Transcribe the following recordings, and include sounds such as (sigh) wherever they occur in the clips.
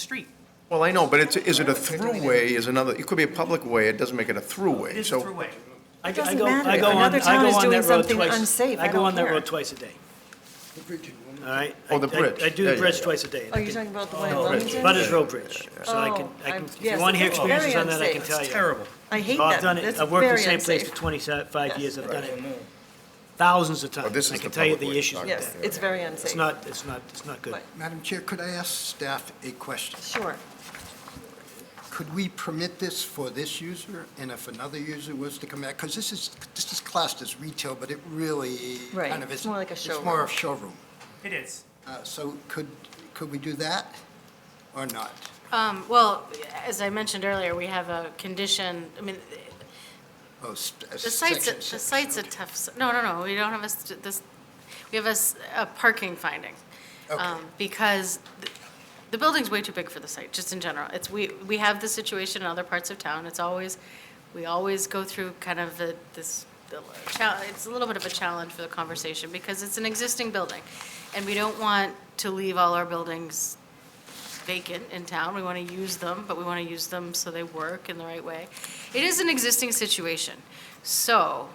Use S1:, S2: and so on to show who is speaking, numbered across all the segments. S1: street.
S2: Well, I know, but it's, is it a throughway is another, it could be a public way, it doesn't make it a throughway.
S1: It is a
S2: So
S1: throughway.
S3: I- I
S4: doesn't
S3: go- I
S4: matter. If
S3: go on-
S4: another
S3: I go
S4: town is
S3: on that
S4: doing
S3: road
S4: something
S3: twice-
S4: unsafe, I
S3: go
S4: don't
S3: on that
S4: care.
S3: road twice a day, all right?
S2: Oh, the
S3: I- I-
S2: bridge.
S3: I do
S2: Yeah,
S3: the
S2: yeah,
S3: bridge
S2: yeah.
S3: twice a day. and
S4: Oh,
S3: I
S4: you're
S3: can-
S4: talking about the one in
S3: Oh,
S4: Wilmington?
S3: Butters Road Bridge, so I can,
S4: Oh,
S3: I can,
S4: I'm-
S3: if you
S4: yes,
S3: want to hear
S4: it's
S3: experiences
S4: very
S3: on that, I can
S4: unsafe.
S3: tell you.
S1: Terrible.
S4: I hate
S3: Oh, I've
S4: that.
S3: done it,
S4: That's
S3: I've worked in the
S4: very
S3: same place for
S4: unsafe.
S3: twenty-five years, I've done it
S1: Right.
S3: thousands of times.
S2: this is
S3: I can
S2: the
S3: tell you
S2: public way
S3: the
S2: to
S3: issues with
S4: Yes,
S3: that.
S4: it's very
S3: It's
S4: unsafe.
S3: not, it's not, it's not good.
S4: Right.
S5: Madam Chair, could I ask staff a question?
S4: Sure.
S5: Could we permit this for this user, and if another user was to come back? Because this is, this is classed as retail, but it really
S4: Right,
S5: kind of is...
S4: it's more like a
S5: It's more
S4: showroom.
S5: of showroom.
S1: It is.
S5: Uh, So could, could we do that or not?
S6: Um, Well, as I mentioned earlier, we have a condition, I mean,
S5: Oh, st- uh,
S6: the site's,
S5: section
S6: the
S5: six.
S6: site's a tough, s- no, no, no, we don't have a, st- this, we have a, s- a parking finding.
S5: Okay.
S6: um, Because th- the building's way too big for the site, just in general. It's, we, we have this situation in other parts of town. It's always, we always go through kind of the, this, the chal- it's a little bit of a challenge for the conversation because it's an existing building. And we don't want to leave all our buildings vacant in town. We want to use them, but we want to use them so they work in the right way. It is an existing situation. So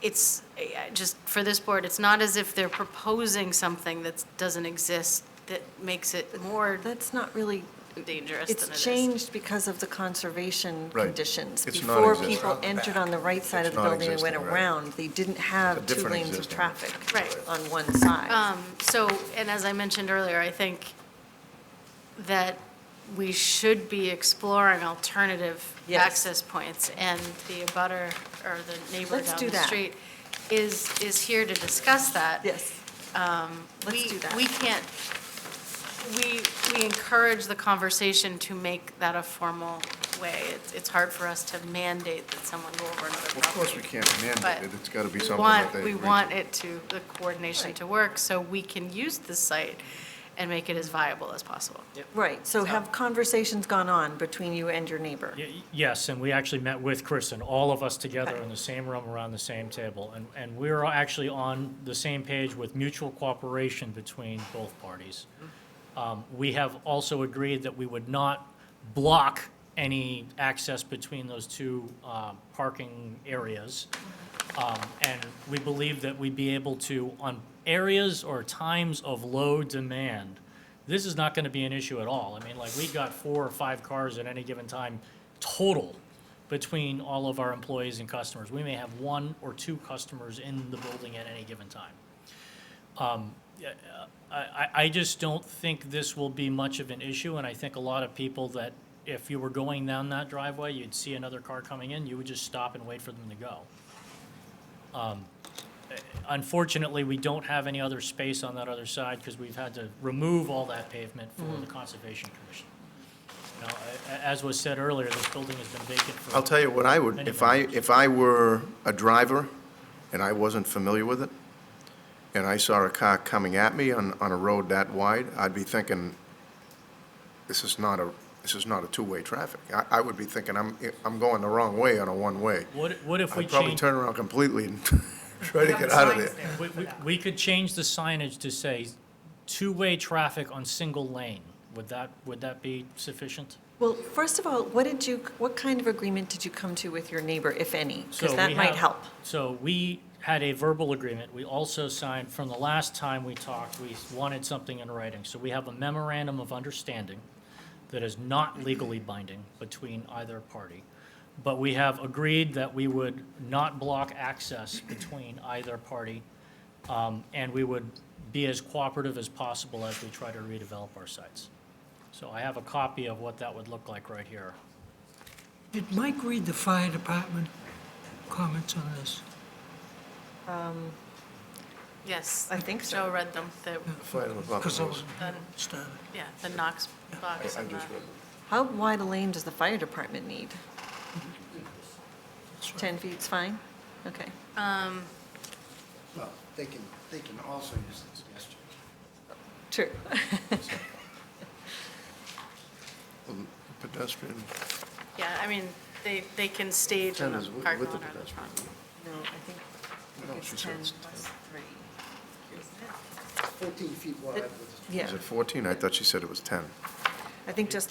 S6: it's, eh, just for this board, it's not as if they're proposing something that doesn't exist that makes it more
S4: That's not really,
S6: dangerous than it
S4: it's
S6: is.
S4: changed because because of the conservation
S2: Right.
S4: conditions.
S2: It's
S4: Before
S2: non-existent.
S4: people entered on the right side of
S2: It's
S4: the building and went
S2: non-existent, right.
S4: around, they didn't
S2: It's
S4: have
S2: a
S4: two
S2: different
S4: lanes of
S2: existing.
S4: traffic
S6: Right.
S4: on one side.
S6: Um, So, and as I mentioned earlier, I think that we should be exploring alternative
S4: Yes.
S6: access points, and the abutter or the neighbor
S4: Let's do
S6: down the
S4: that.
S6: street is, is here to discuss that.
S4: Yes. Let's
S6: um, We-
S4: do that.
S6: We can't, we, we encourage the conversation to make that a formal way. It's, it's hard for us to mandate that someone go over another property.
S2: Of course, we can't mandate it,
S6: But
S2: it's got to be
S6: we
S2: something
S6: want-
S2: that they...
S6: We
S2: agree to.
S6: want it to, the coordination
S4: Right.
S6: to work, so we can use the site and make it as viable as possible.
S4: Right, so have conversations gone on between you and your neighbor?
S7: Y- Yes, and we actually met with Kristen, all of us together in the same room around the same table. And, and we're actually on the same page with mutual cooperation between both parties. Um, We have also agreed that we would not block any access between those two um, parking areas. Um, And we believe that we'd be able to, on areas or times of low demand, this is not going to be an issue at all. I mean, like, we've got four or five cars at any given time total between all of our employees and customers. We may have one or two customers in the building at any given time. I, I- I just don't think this will be much of an issue, and I think a lot of people that, if you were going down that driveway, you'd see another car coming in, you would just stop and wait for them to go. Um, Unfortunately, we don't have any other space on that other side, because we've had to remove all that pavement for
S2: Mm-hmm.
S7: the Conservation Commission. Now, a- a- as was said earlier, this building has been vacant for.
S2: I'll tell you what I would, if I, if I were a driver and I wasn't familiar with it, and I saw a car coming at me on, on a road that wide, I'd be thinking, this is not a, this is not a two-way traffic. I, I would be thinking, I'm, I'm going the wrong way on a one-way.
S7: What, what if we
S2: I'd probably
S7: change?
S2: turn around completely and (laughs) try to
S1: We
S2: get
S1: have
S2: out of
S1: signs
S2: there.
S7: We,
S1: for
S7: we,
S1: that.
S7: we could change the signage to say, two-way traffic on single lane. Would that, would that be sufficient?
S4: Well, first of all, what did you, what kind of agreement did you come to with your neighbor, if any?
S7: So
S4: Because that
S7: we
S4: might
S7: have-
S4: help.
S7: So we had a verbal agreement. We also signed, from the last time we talked, we wanted something in writing. So we have a memorandum of understanding that is not legally binding between either party. But we have agreed that we would not block access between either party, um, and we would be as cooperative as possible as we try to redevelop our sites. So I have a copy of what that would look like right here.
S8: Did Mike read the fire department comments on this?
S6: Yes.
S4: I think so.
S6: Joe read them, the,
S2: Fire department
S8: Because I was
S2: was-
S6: Done.
S8: started.
S6: yeah, the Knox box
S2: I
S6: and the,
S2: just read it.
S4: How wide a lane does the fire department need? 10 feet's fine? Okay.
S5: Well, they can, they can also use this gesture.
S4: True. (laughs)
S2: Pedestrian,
S6: yeah, I mean, they, they can stage in
S2: Ten
S6: the
S2: is with
S6: parking
S2: with
S6: lot
S2: the
S6: or the
S2: pedestrian.
S6: front.
S4: No, I think
S2: No, she
S4: it's
S2: said
S4: 10
S2: it's
S4: plus 3.
S5: 14 feet wide with
S4: Yeah.
S2: Is it 14? I thought she said it was 10.
S4: I think just